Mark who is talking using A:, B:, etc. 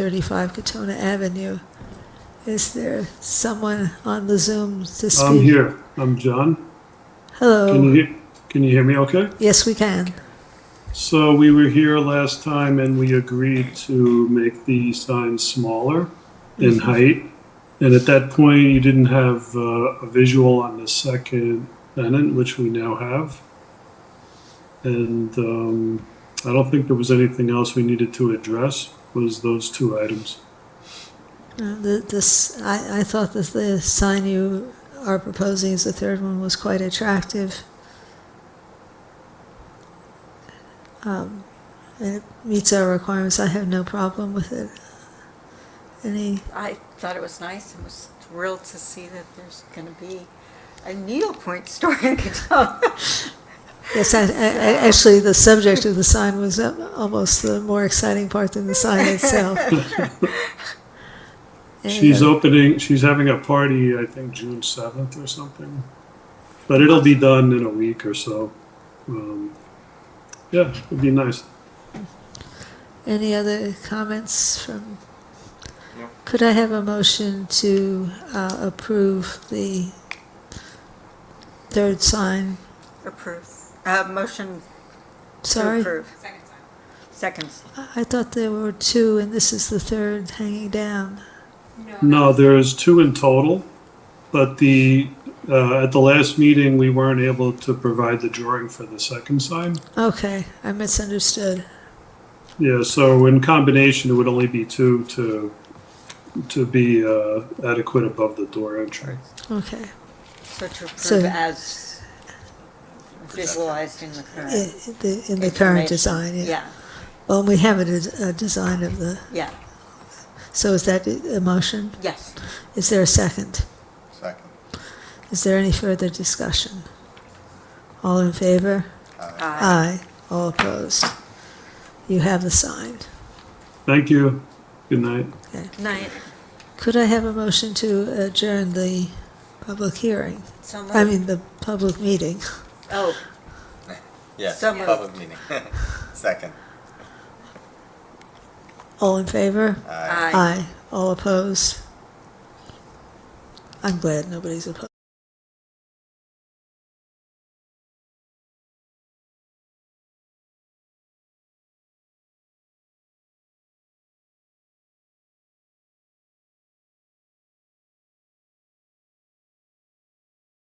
A: 135 Katona Avenue. Is there someone on the Zoom to speak?
B: I'm here. I'm John. Can you
A: Hello.
B: hear, can you hear me okay?
A: Yes, we can.
B: So we were here last time and we agreed to make the sign smaller in height. And at that point, you didn't have uh, a visual on the second pennant, which we now have. And um, I don't think there was anything else we needed to address, was those two items.
A: Uh, the- This, I, I thought that the sign you are proposing as the third one was quite attractive. Um, and It meets our requirements. I have no problem with it. Any,
C: I thought it was nice and was thrilled to see that there's going to be a needlepoint store in Catoga.
A: yes, I- I- I- actually, the subject of the sign was uh, almost the more exciting part than the sign itself.
B: She's opening, she's having a party, I think June seventh or something. But it'll be done in a week or so. Um, yeah, it'd be nice.
A: Any other comments from?
D: No.
A: Could I have a motion to uh, approve the third sign?
C: Approve. Uh, motion to
A: Sorry,
C: approve. Seconds.
A: I I thought there were two, and this is the third hanging down.
B: No, there's two in total, but the, uh, at the last meeting, we weren't able to provide the drawing for the second sign.
A: Okay, I misunderstood.
B: Yeah, so in combination, it would only be two to, to be, uh, adequate above the door entry.
A: Okay,
C: So to approve
A: So-
C: as visualized in the
A: I-
C: current.
A: i- the- in the current
C: information.
A: design, yeah.
C: Yeah,
A: Well, we have a des- a design of the,
C: yeah,
A: so is that a a motion?
C: yes.
A: Is there a second?
D: Second.
A: Is there any further discussion? All in favor?
C: Uh,
A: Aye. All opposed? You have the sign.
B: Thank you. Good night.
C: Night.
A: Could I have a motion to adjourn the public hearing?
C: So
A: I
C: moved.
A: mean, the public meeting.
C: Oh,
D: Yeah,
C: So moved.
D: public meeting. Second.
A: All in favor?
D: Aye.
C: aye.
A: Aye. All opposed? I'm glad nobody's opposed.